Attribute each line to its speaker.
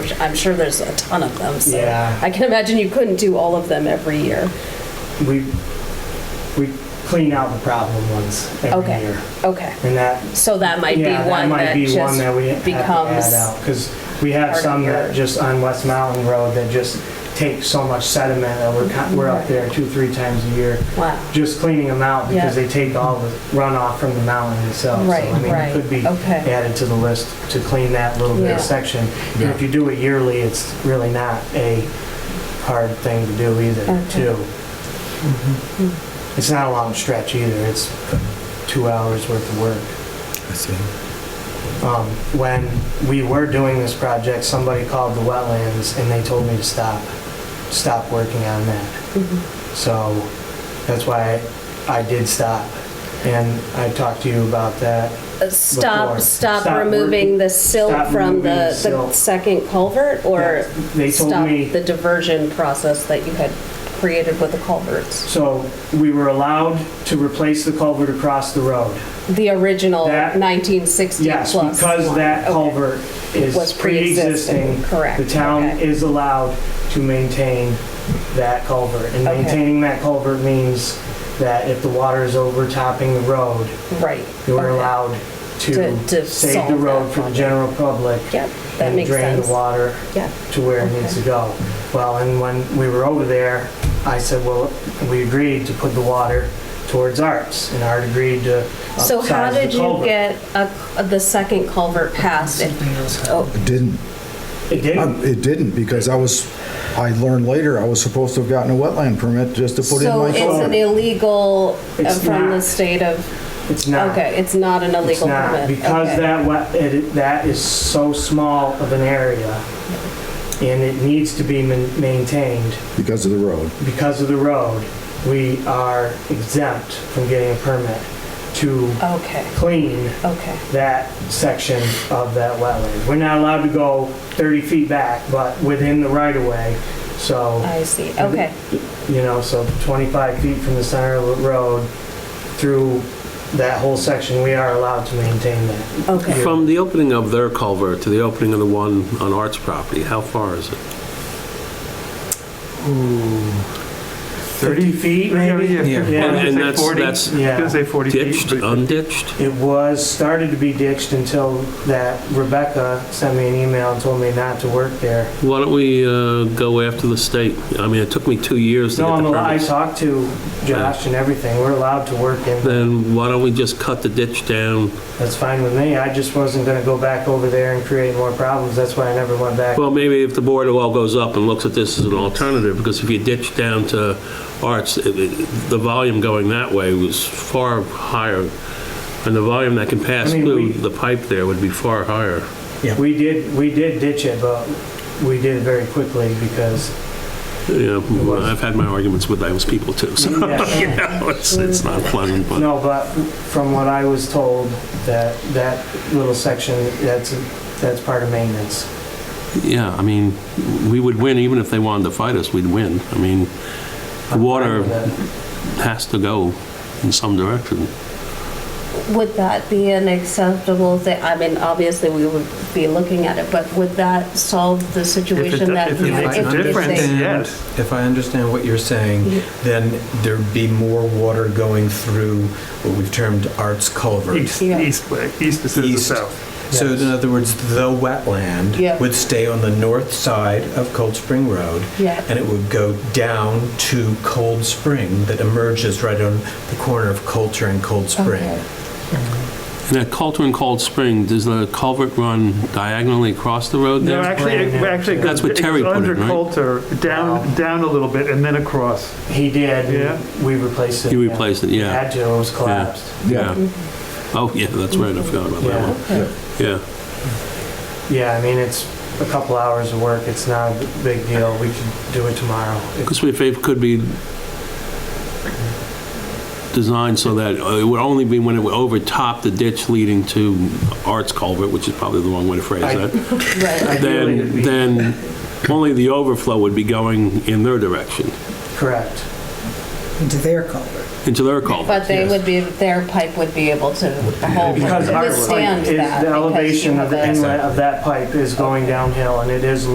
Speaker 1: which I'm sure there's a ton of them, so.
Speaker 2: Yeah.
Speaker 1: I can imagine you couldn't do all of them every year.
Speaker 2: We, we clean out the problem ones every
Speaker 1: Okay.
Speaker 2: year.
Speaker 1: Okay,
Speaker 2: And that,
Speaker 1: so that might be
Speaker 2: yeah, that
Speaker 1: one
Speaker 2: might
Speaker 1: that
Speaker 2: be one
Speaker 1: just
Speaker 2: that we have to add
Speaker 1: becomes,
Speaker 2: out. Because we have
Speaker 1: part of
Speaker 2: some
Speaker 1: your-
Speaker 2: that just on West Mountain Road that just take so much sediment that we're, con- we're up there two, three times a year.
Speaker 1: wow,
Speaker 2: Just cleaning them out because
Speaker 1: Yeah.
Speaker 2: they take all the runoff from the mountain itself.
Speaker 1: Right,
Speaker 2: So I mean,
Speaker 1: right,
Speaker 2: it could be
Speaker 1: okay.
Speaker 2: added to the list to clean that little bit
Speaker 1: Yeah.
Speaker 2: of section. And if you do it yearly, it's really not a hard thing to do either,
Speaker 1: Okay.
Speaker 2: too. It's not a long stretch either. It's two hours worth of work.
Speaker 3: I see.
Speaker 2: Um, When we were doing this project, somebody called the wetlands and they told me to stop, stop working on that. So that's why I did stop. And I talked to you about that.
Speaker 1: Uh, stop,
Speaker 2: Before.
Speaker 1: stop
Speaker 2: Stop
Speaker 1: removing
Speaker 2: working-
Speaker 1: the silt
Speaker 2: stop
Speaker 1: from
Speaker 2: removing
Speaker 1: the, the
Speaker 2: silt.
Speaker 1: second culvert, or
Speaker 2: They told
Speaker 1: stop
Speaker 2: me-
Speaker 1: the diversion process that you had created with the culverts?
Speaker 2: So we were allowed to replace the culvert across the road.
Speaker 1: The original
Speaker 2: That-
Speaker 1: 1960 plus
Speaker 2: Yes,
Speaker 1: one?
Speaker 2: because that
Speaker 1: Okay.
Speaker 2: culvert
Speaker 1: Was
Speaker 2: is
Speaker 1: pre-existing,
Speaker 2: pre-existing.
Speaker 1: correct,
Speaker 2: The town
Speaker 1: okay.
Speaker 2: is allowed to maintain that culvert. And
Speaker 1: Okay.
Speaker 2: maintaining that culvert means that if the water is overtopping the road,
Speaker 1: Right.
Speaker 2: you are
Speaker 1: okay.
Speaker 2: allowed
Speaker 1: To- to
Speaker 2: to save the
Speaker 1: solve
Speaker 2: road
Speaker 1: that
Speaker 2: for the
Speaker 1: problem.
Speaker 2: general public.
Speaker 1: Yep, that makes
Speaker 2: And drain
Speaker 1: sense.
Speaker 2: the water
Speaker 1: Yeah.
Speaker 2: to where it needs to go. Well, and when we were over there, I said, well, we agreed to put the water towards Arts, and Art agreed to
Speaker 1: So how
Speaker 2: upsize the
Speaker 1: did you
Speaker 2: culvert.
Speaker 1: get a- the second culvert passed? Oh,
Speaker 3: It didn't.
Speaker 2: It didn't.
Speaker 3: Um, It didn't because I was, I learned later, I was supposed to have gotten a wetland permit just to put in
Speaker 1: So
Speaker 3: my
Speaker 1: it's an
Speaker 3: culvert.
Speaker 1: illegal uh,
Speaker 2: It's
Speaker 1: from the
Speaker 2: not.
Speaker 1: state of,
Speaker 2: It's not.
Speaker 1: okay, it's not an
Speaker 2: It's
Speaker 1: illegal
Speaker 2: not,
Speaker 1: permit?
Speaker 2: because
Speaker 1: okay.
Speaker 2: that, wet- it- that is so small of an area, and it needs to be man- maintained
Speaker 3: Because of the road.
Speaker 2: because of the road, we are exempt from getting a permit to
Speaker 1: Okay,
Speaker 2: clean
Speaker 1: okay,
Speaker 2: that section of that wetland. We're not allowed to go 30 feet back, but within the right-of-way, so,
Speaker 1: I see, okay,
Speaker 2: you know, so 25 feet from the center of the road through that whole section, we are allowed to maintain that.
Speaker 1: okay.
Speaker 4: From the opening of their culvert to the opening of the one on Art's property, how far is it?
Speaker 2: 30 feet, maybe?
Speaker 5: Yeah,
Speaker 6: Yeah.
Speaker 2: Yeah.
Speaker 4: And
Speaker 5: I
Speaker 4: and
Speaker 5: was gonna say
Speaker 4: that's,
Speaker 5: 40.
Speaker 4: that's
Speaker 2: Yeah.
Speaker 5: Gonna say 40 feet.
Speaker 4: ditched, unditched?
Speaker 2: It was, started to be ditched until that Rebecca sent me an email and told me not to work there.
Speaker 4: Why don't we uh, go after the state? I mean, it took me two years to
Speaker 2: No,
Speaker 4: get
Speaker 2: I'm,
Speaker 4: the
Speaker 2: al- I
Speaker 4: permits.
Speaker 2: talked to Josh and everything, we're allowed to work in,
Speaker 4: Then why don't we just cut the ditch down?
Speaker 2: that's fine with me, I just wasn't gonna go back over there and create more problems, that's why I never went back.
Speaker 4: Well, maybe if the board of all goes up and looks at this as an alternative, because if you ditch down to Arts, it- it- the volume going that way was far higher, and the volume that can pass
Speaker 2: I mean, we-
Speaker 4: through the pipe there would be far higher.
Speaker 2: We did, we did ditch it, but we did it very quickly because,
Speaker 4: Yeah, well, I've had my arguments with those people too, so, you
Speaker 2: yeah,
Speaker 4: know, it's, it's not pleasant, but,
Speaker 2: no, but from what I was told, that, that little section, that's, that's part of maintenance.
Speaker 4: yeah, I mean, we would win, even if they wanted to fight us, we'd win. I mean, the water has to go in some direction.
Speaker 1: Would that be an acceptable thing? I mean, obviously, we would be looking at it, but would that solve the
Speaker 5: If it
Speaker 1: situation that?
Speaker 5: if it
Speaker 1: you had
Speaker 5: makes a
Speaker 1: if they-
Speaker 5: difference, yes.
Speaker 6: If I understand what you're saying, then there'd be more water going through what we've termed Arts Culvert.
Speaker 5: East,
Speaker 1: Yeah.
Speaker 5: east way, east instead of
Speaker 6: East.
Speaker 5: south.
Speaker 6: So in other words, the
Speaker 1: Yeah.
Speaker 6: wetland would stay on the north side of Cold Spring Road.
Speaker 1: Yeah.
Speaker 6: And it would go down to Cold Spring that emerges right on the corner of Coulter and Cold Spring.
Speaker 1: Okay.
Speaker 4: And at Coulter and Cold Spring, does the culvert run diagonally across the road
Speaker 5: No,
Speaker 4: there?
Speaker 5: actually, it
Speaker 2: brand new.
Speaker 5: actually it
Speaker 4: That's
Speaker 5: goes
Speaker 4: what
Speaker 5: it
Speaker 4: Terry
Speaker 5: goes
Speaker 4: put
Speaker 5: under
Speaker 4: in, right?
Speaker 5: Coulter,
Speaker 2: Wow.
Speaker 5: down, down a little bit, and then across.
Speaker 2: He did,
Speaker 5: Yeah.
Speaker 2: and we replaced it.
Speaker 4: You replaced it, yeah.
Speaker 2: Had to, it was collapsed.
Speaker 4: Yeah. Oh, yeah, that's right, I forgot about that
Speaker 2: Yeah.
Speaker 4: one. Yeah,
Speaker 2: Yeah, I mean, it's a couple hours of work, it's not a big deal, we could do it tomorrow. If-
Speaker 4: because if it could be designed so that uh, it would only be when it would overtop the ditch leading to Arts Culvert, which is probably the wrong way to phrase
Speaker 2: I-
Speaker 4: that,
Speaker 1: Right,
Speaker 2: Ideally, it'd
Speaker 4: then,
Speaker 2: be-
Speaker 4: then only the overflow would be going in their direction,
Speaker 2: Correct.
Speaker 7: into their culvert.
Speaker 4: into their culvert.
Speaker 1: but they would be, their pipe would be able to hold,
Speaker 2: Because our pipe
Speaker 1: withstand
Speaker 2: is,
Speaker 1: that. because
Speaker 2: the
Speaker 1: you
Speaker 2: elevation of
Speaker 1: have
Speaker 2: the
Speaker 1: a-
Speaker 2: inlet of that pipe is going downhill, and it is